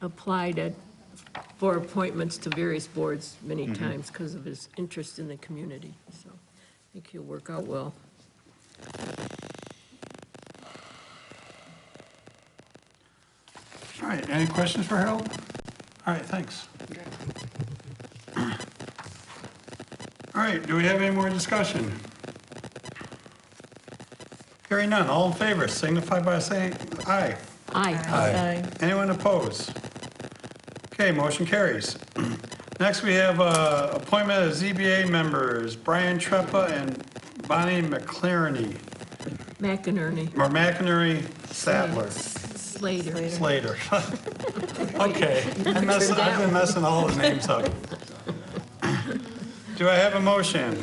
applied at, for appointments to various boards many times because of his interest in the community, so I think he'll work out well. All right, any questions for Harold? All right, thanks. All right, do we have any more discussion? Hearing none, all in favor, signify by saying aye. Aye. Anyone opposed? Okay, motion carries. Next, we have uh, appointment of ZBA members, Brian Treppa and Bonnie McLaren, McInerney, or McInerney Sadler. Slater. Slater. Okay, I'm messing- I've been messing all the names up. Do I have a motion?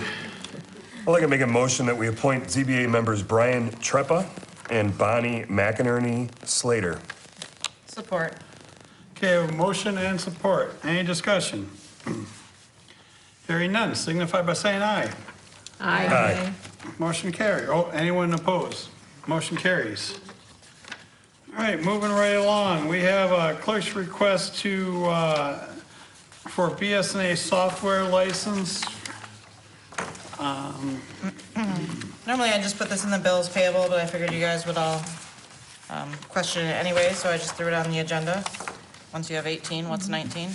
I'd like to make a motion that we appoint ZBA members Brian Treppa and Bonnie McInerney Slater. Support. Okay, a motion and support. Any discussion? Hearing none, signify by saying aye. Aye. Motion carry. Oh, anyone opposed? Motion carries. All right, moving right along, we have a clerk's request to, uh, for BSNA software license. Normally, I just put this in the bills payable, but I figured you guys would all um, question it anyway, so I just threw it on the agenda. Once you have 18, what's 19?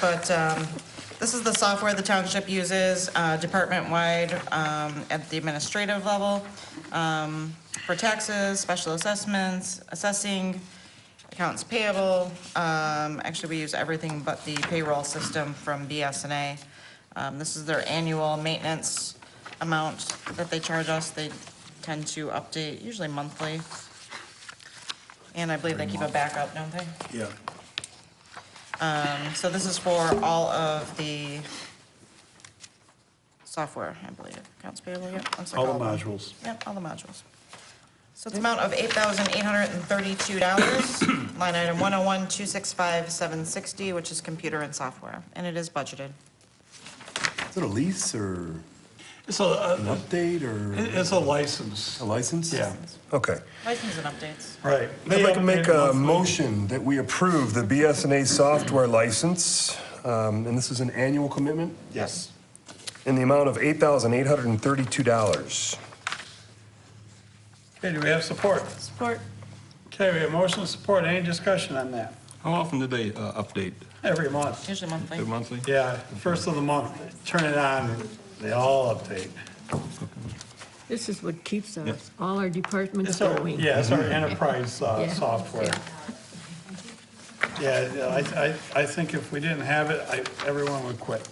But um, this is the software the township uses uh, department-wide um, at the administrative level um, for taxes, special assessments, assessing, accounts payable. Um, Actually, we use everything but the payroll system from BSNA. Um, This is their annual maintenance amount that they charge us. They tend to update usually monthly. And I believe they keep a backup, don't they? Yeah. So this is for all of the software, I believe, accounts payable, yep. looks like All the of them. modules. Yep, all the modules. So it's amount of eight thousand eight hundred and thirty-two dollars, line item one oh one, two six five, seven sixty, which is computer and software, and it is budgeted. Is it a lease or It's a, an a- update or it's a license. a license? Yeah, Okay. License and updates. right. I'd like to make uh, a motion that we approve the BSNA software license, um, and this is an annual commitment, Yes. in the amount of $8,832. Okay, do we have support? Support. Okay, we have motion and support. Any discussion on that? How often do they uh, update? Every month. Usually monthly. Every monthly? Yeah, first of the month, turn it on, they all update. This is what keeps us, all our departments It's our, going. yeah, it's our enterprise uh, Yeah. software. Yeah, I, I, I think if we didn't have it, I, everyone would quit.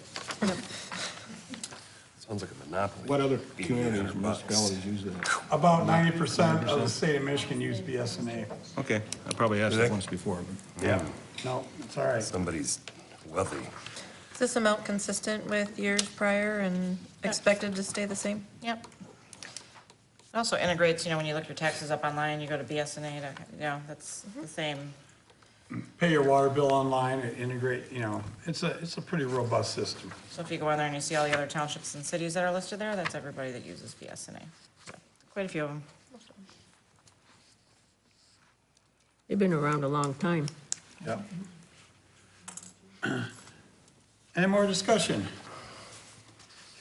Sounds like a monopoly. What other communities, municipalities use that? About ninety percent of the state of Michigan use BSNA. Okay, I probably asked Do they- this once before, but Yeah. No, it's all right. Somebody's wealthy. Is this amount consistent with years prior and expected to stay the same? Yep. It also integrates, you know, when you look your taxes up online, you go to BSNA, to- you know, that's the same. Pay your water bill online, it integrate, you know, it's a, it's a pretty robust system. So if you go on there and you see all the other townships and cities that are listed there, that's everybody that uses BSNA. So, Quite a few of them. They've been around a long time. Yep. Any more discussion?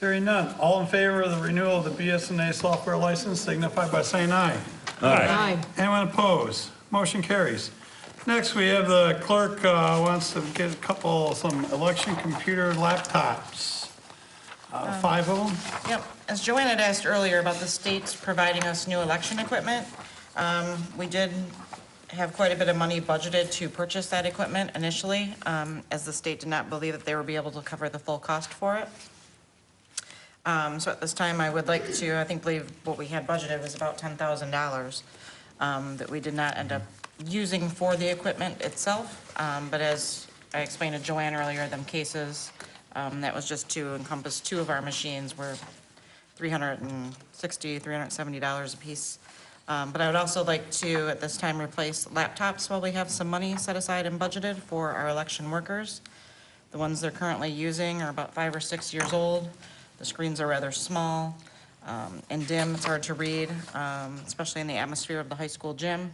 Hearing none. All in favor of the renewal of the BSNA software license signify by saying aye. Aye. Anyone opposed? Motion carries. Next, we have the clerk uh, wants to get a couple, some election computer laptops. Uh, Five of them? Yep, as Joanne had asked earlier about the states providing us new election equipment, um, we did have quite a bit of money budgeted to purchase that equipment initially, um, as the state did not believe that they would be able to cover the full cost for it. Um, So at this time, I would like to, I think, believe what we had budgeted was about $10,000 um, that we did not end up using for the equipment itself. Um, But as I explained to Joanne earlier, them cases, um, that was just to encompass two of our machines were $360, $370 apiece. Um, But I would also like to, at this time, replace laptops while we have some money set aside and budgeted for our election workers. The ones they're currently using are about five or six years old. The screens are rather small um, and dim, it's hard to read, um, especially in the atmosphere of the high school gym.